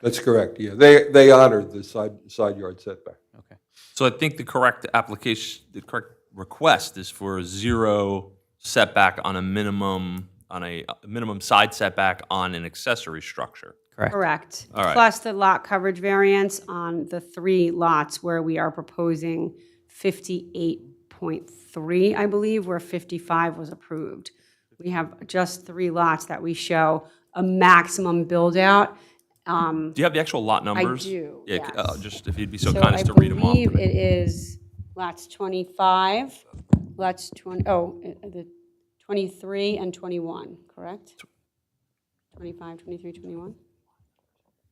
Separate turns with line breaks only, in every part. That's correct, yeah. They, they honored the side, side yard setback.
Okay. So I think the correct application, the correct request is for zero setback on a minimum, on a a minimum side setback on an accessory structure.
Correct.
All right.
Plus the lot coverage variance on the three lots where we are proposing 58.3, I believe, where 55 was approved. We have just three lots that we show a maximum um, build-out.
Do you have the actual lot numbers?
do,
Yeah, c- uh,
yes.
just if you'd be so
So
kind
I
as to read them off.
believe it is lots 25, lots 20, oh, uh, the 23 and 21, correct? 25, 23, 21?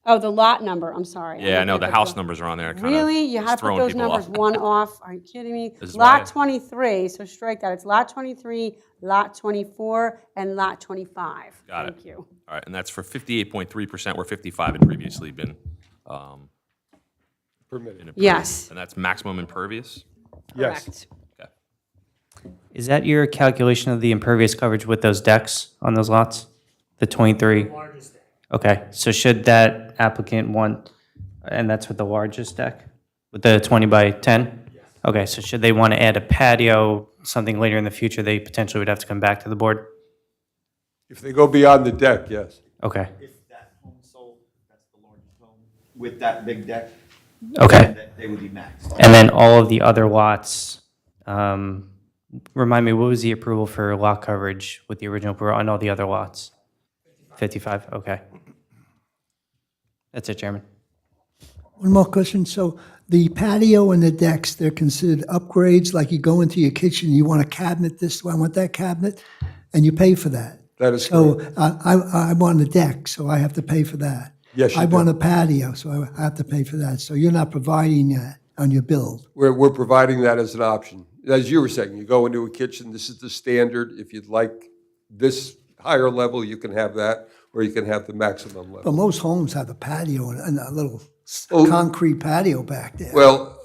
Oh, the lot number, I'm sorry.
Yeah, I know,
looked
the
at
house numbers are on there, kind of.
Really? You had to put
throwing
those
people off.
numbers one off? Are you kidding me?
This is why I-
Lot 23, so strike that. It's lot 23, lot 24, and lot 25.
Got it.
Thank you.
All right, and that's for 58.3% where 55 had previously been um,
Permitted.
approved.
Yes,
And that's maximum impervious?
Yes.
correct.
Okay.
Is that your calculation of the impervious coverage with those decks on those lots? The 23? Okay, so should that applicant want, and that's with the largest deck? With the 20 by 10? Okay, so should they want to add a patio, something later in the future, they potentially would have to come back to the board?
If they go beyond the deck, yes.
Okay,
If that home sold, that's the largest home. With that big deck,
okay.
that they would be maxed.
And then all of the other lots, um, remind me, what was the approval for lot coverage with the original approval on all the other lots? 55, okay. That's it, Chairman.
One more question. So the patio and the decks, they're considered upgrades, like you go into your kitchen, you want a cabinet this, I want that cabinet, and you pay for that.
That is
So
correct.
I, I- I want a deck, so I have to pay for that.
Yes, you
I
do.
want a patio, so I have to pay for that. So you're not providing that on your build.
We're, we're providing that as an option. As you were saying, you go into a kitchen, this is the standard. If you'd like this higher level, you can have that, or you can have the maximum
But
level.
most homes have a patio and- and a little s-
Oh.
concrete patio back there.
Well,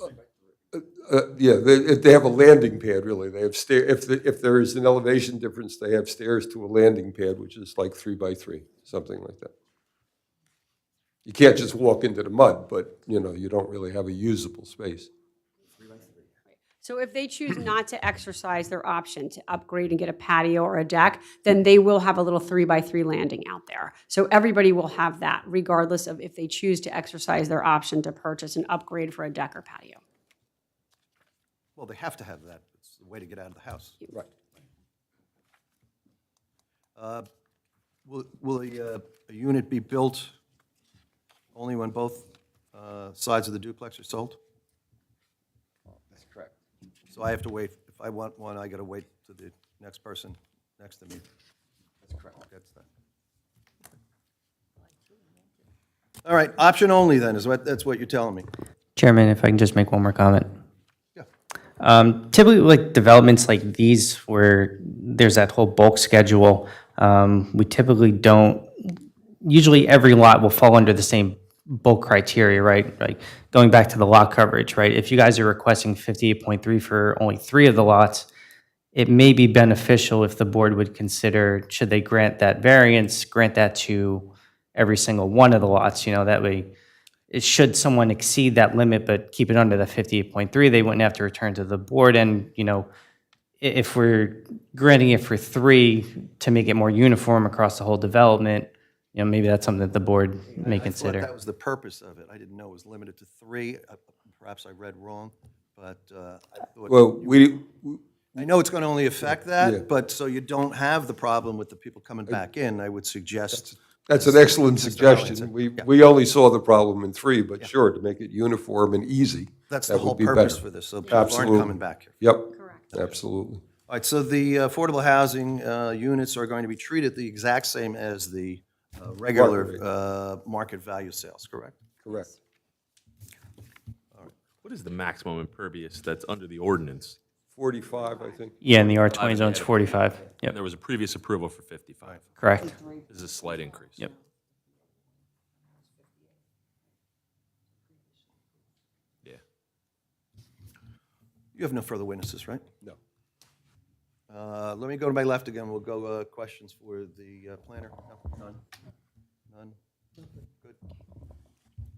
uh, uh, yeah, they, if they have a landing pad, really. They have stair, if, the- if there is an elevation difference, they have stairs to a landing pad, which is like three by three, something like that. You can't just walk into the mud, but, you know, you don't really have a usable space.
So if they choose not to exercise their option to upgrade and get a patio or a deck, then they will have a little three-by-three landing out there. So everybody will have that regardless of if they choose to exercise their option to purchase an upgrade for a deck or patio.
Well, they have to have that. It's the way to get out of the house.
Right.
Uh, Will, will a, uh, a unit be built only when both uh, sides of the duplex are sold? That's correct. So I have to wait, if I want one, I got to wait to the next person next to me. That's correct. That's that. All right, option only then, is what, that's what you're telling me?
Chairman, if I can just make one more comment.
Yeah.
Um, typically, like developments like these where there's that whole bulk schedule, um, we typically don't, usually every lot will fall under the same bulk criteria, right? Like going back to the lot coverage, right? If you guys are requesting 58.3 for only three of the lots, it may be beneficial if the board would consider, should they grant that variance, grant that to every single one of the lots, you know, that way, it should someone exceed that limit but keep it under the 58.3, they wouldn't have to return to the board, and, you know, i- if we're granting it for three to make it more uniform across the whole development, you know, maybe that's something that the board may
I thought
consider.
that was the purpose of it. I didn't know it was limited to three. Uh, Perhaps I read wrong, but uh, I thought,
Well, we,
I know it's going to only affect
Yeah.
that, but so you don't have the problem with the people coming back in, I would suggest.
that's an excellent
said,
suggestion. We, we only saw the problem in three, but sure, to make it uniform and easy.
That's the
that would
whole
be
purpose
better.
for this, so people aren't
Absolutely.
coming back here.
Yep. Correct. Absolutely.
All right, so the affordable housing uh, units are going to be treated the exact same as the uh, regular uh, market value sales, correct?
Correct.
What is the maximum impervious that's under the ordinance?
45, I think.
Yeah, and the R20 zone's 45.
And
Yep,
there was a previous approval for 55.
correct.
This is a slight increase.
Yep.
Yeah.
You have no further witnesses, right?
No.
Uh, Let me go to my left again. We'll go uh, questions for the uh, planner. No, None? None? Good.